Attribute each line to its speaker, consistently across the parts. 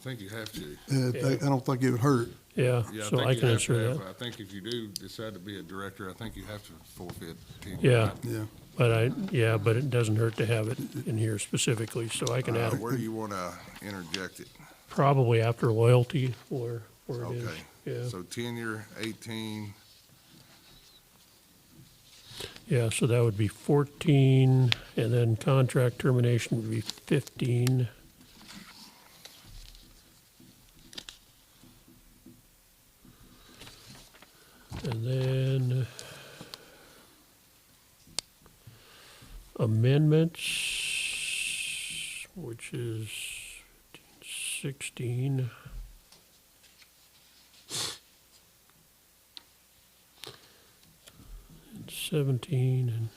Speaker 1: think you have to.
Speaker 2: Uh, they- I don't think it would hurt.
Speaker 3: Yeah,
Speaker 1: Yeah,
Speaker 3: so
Speaker 1: think
Speaker 3: I
Speaker 1: you
Speaker 3: can
Speaker 1: have to
Speaker 3: ensure
Speaker 1: have-
Speaker 3: that.
Speaker 1: I think if you do decide to be a director, I think you have to forfeit. tenure.
Speaker 3: Yeah,
Speaker 2: Yeah.
Speaker 3: but I, yeah, but it doesn't hurt to have it in here specifically, so I can
Speaker 1: Uh,
Speaker 3: add
Speaker 1: Where do you want to interject it?
Speaker 3: probably after loyalty or where it
Speaker 1: Okay.
Speaker 3: is. Yeah,
Speaker 1: So tenure, eighteen,
Speaker 3: yeah, so that would be fourteen, and then contract termination would be fifteen. And then amendments, which is sixteen. and Seventeen and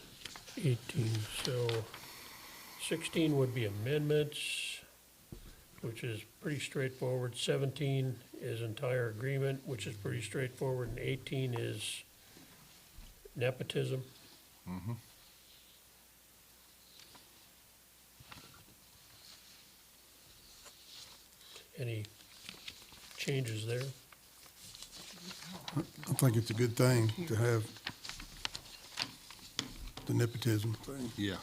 Speaker 3: eighteen, so sixteen would be amendments, which is pretty straightforward. Seventeen is entire agreement, which is pretty straightforward, and eighteen is nepotism. Any changes there?
Speaker 2: I think it's a good thing to have the nepotism thing.
Speaker 1: yeah,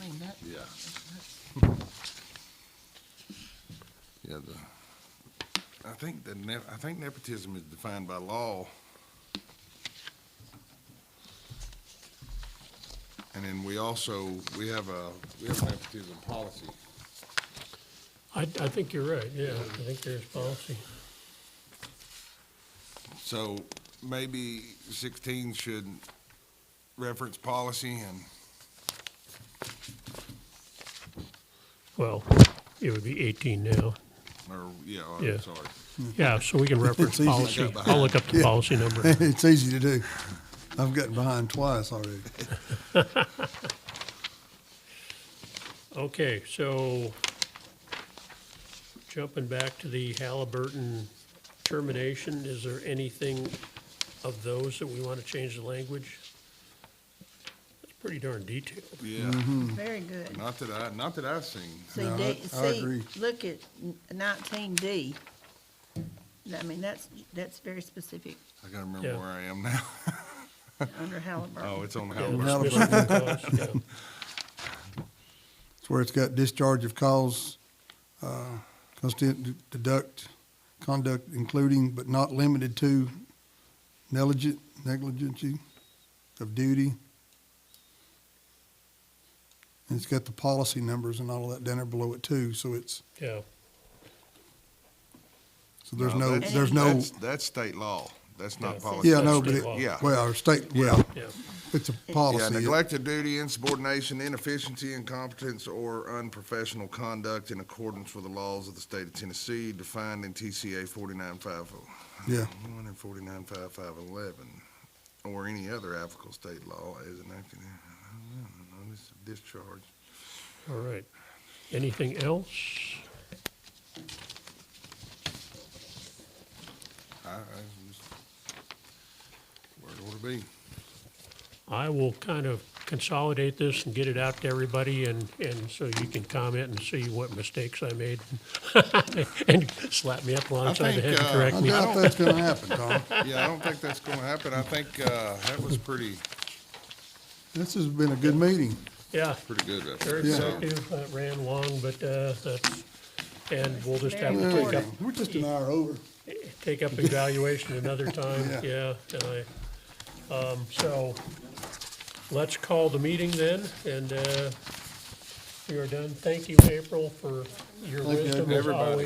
Speaker 4: I mean, that,
Speaker 1: yeah. Yeah, the, I think the nep, I think nepotism is defined by law. And then we also, we have a, we have nepotism policy.
Speaker 3: I, I think you're right, yeah, I think there's policy.
Speaker 1: So maybe sixteen should reference policy and,
Speaker 3: Well, it would be 18 now.
Speaker 1: or, yeah,
Speaker 3: Yeah.
Speaker 1: I'm sorry.
Speaker 3: Yeah, so we can
Speaker 2: It's
Speaker 3: reference
Speaker 2: easy.
Speaker 1: I
Speaker 3: policy.
Speaker 1: got
Speaker 3: I'll look up the policy number.
Speaker 2: It's easy to do. I've gotten behind twice already.
Speaker 3: Okay, so jumping back to the Halliburton termination, is there anything of those that we want to change the language? That's pretty darn detailed.
Speaker 1: Yeah,
Speaker 4: very good.
Speaker 1: not that I, not that I've seen.
Speaker 4: See,
Speaker 2: No, I-
Speaker 4: D,
Speaker 2: I
Speaker 4: see,
Speaker 2: agree.
Speaker 4: look at nineteen D. I mean, that's, that's very specific
Speaker 1: I gotta remember
Speaker 3: Yeah.
Speaker 1: where I am now.
Speaker 4: under
Speaker 1: Oh,
Speaker 4: Halliburton.
Speaker 1: it's on
Speaker 3: Yeah,
Speaker 1: Howard.
Speaker 3: dismissal of cause, yeah.
Speaker 2: It's where it's got discharge of cause, uh, constant deduct, conduct including but not limited to negligent, negligence of duty. And it's got the policy numbers and all of that down there below it too, so it's,
Speaker 3: Yeah,
Speaker 2: so there's no,
Speaker 1: that's-
Speaker 2: there's no,
Speaker 1: That's, that's state law. That's
Speaker 3: Yeah.
Speaker 1: not policy.
Speaker 2: yeah, no, but
Speaker 3: state
Speaker 2: it,
Speaker 3: law.
Speaker 1: Yeah.
Speaker 2: well, our state, well,
Speaker 3: yeah,
Speaker 2: it's a
Speaker 1: Yeah,
Speaker 2: policy.
Speaker 1: neglect of duty, insubordination, inefficiency, incompetence, or unprofessional conduct in accordance with the laws of the state of Tennessee defined in TCA forty-nine five oh
Speaker 2: Yeah,
Speaker 1: one and forty-nine five five eleven, or any other applicable state law as enacted in, notice of discharge.
Speaker 3: all right. Anything else?
Speaker 1: I, I just, where it ought to be.
Speaker 3: I will kind of consolidate this and get it out to everybody and, and so you can comment and see what mistakes I made. And slap me up alongside the head and
Speaker 1: think, uh,
Speaker 3: correct
Speaker 2: I
Speaker 3: me.
Speaker 2: doubt that's gonna happen, Tom.
Speaker 1: Yeah, I don't think that's gonna happen. I think, uh, that was pretty,
Speaker 2: This has been a good meeting.
Speaker 3: Yeah,
Speaker 1: pretty good. I
Speaker 3: very
Speaker 1: think.
Speaker 2: Yeah.
Speaker 3: effective, that ran long, but, uh, that's, and we'll just have to take
Speaker 2: Yeah,
Speaker 3: up,
Speaker 2: We're just an hour over.
Speaker 3: take up evaluation another time, yeah.
Speaker 2: Yeah.
Speaker 3: and I- Um, so, let's call the meeting then, and, uh, we are done. Thank you, April, for your
Speaker 2: Thank you,
Speaker 3: wisdom as
Speaker 1: everybody.
Speaker 3: always.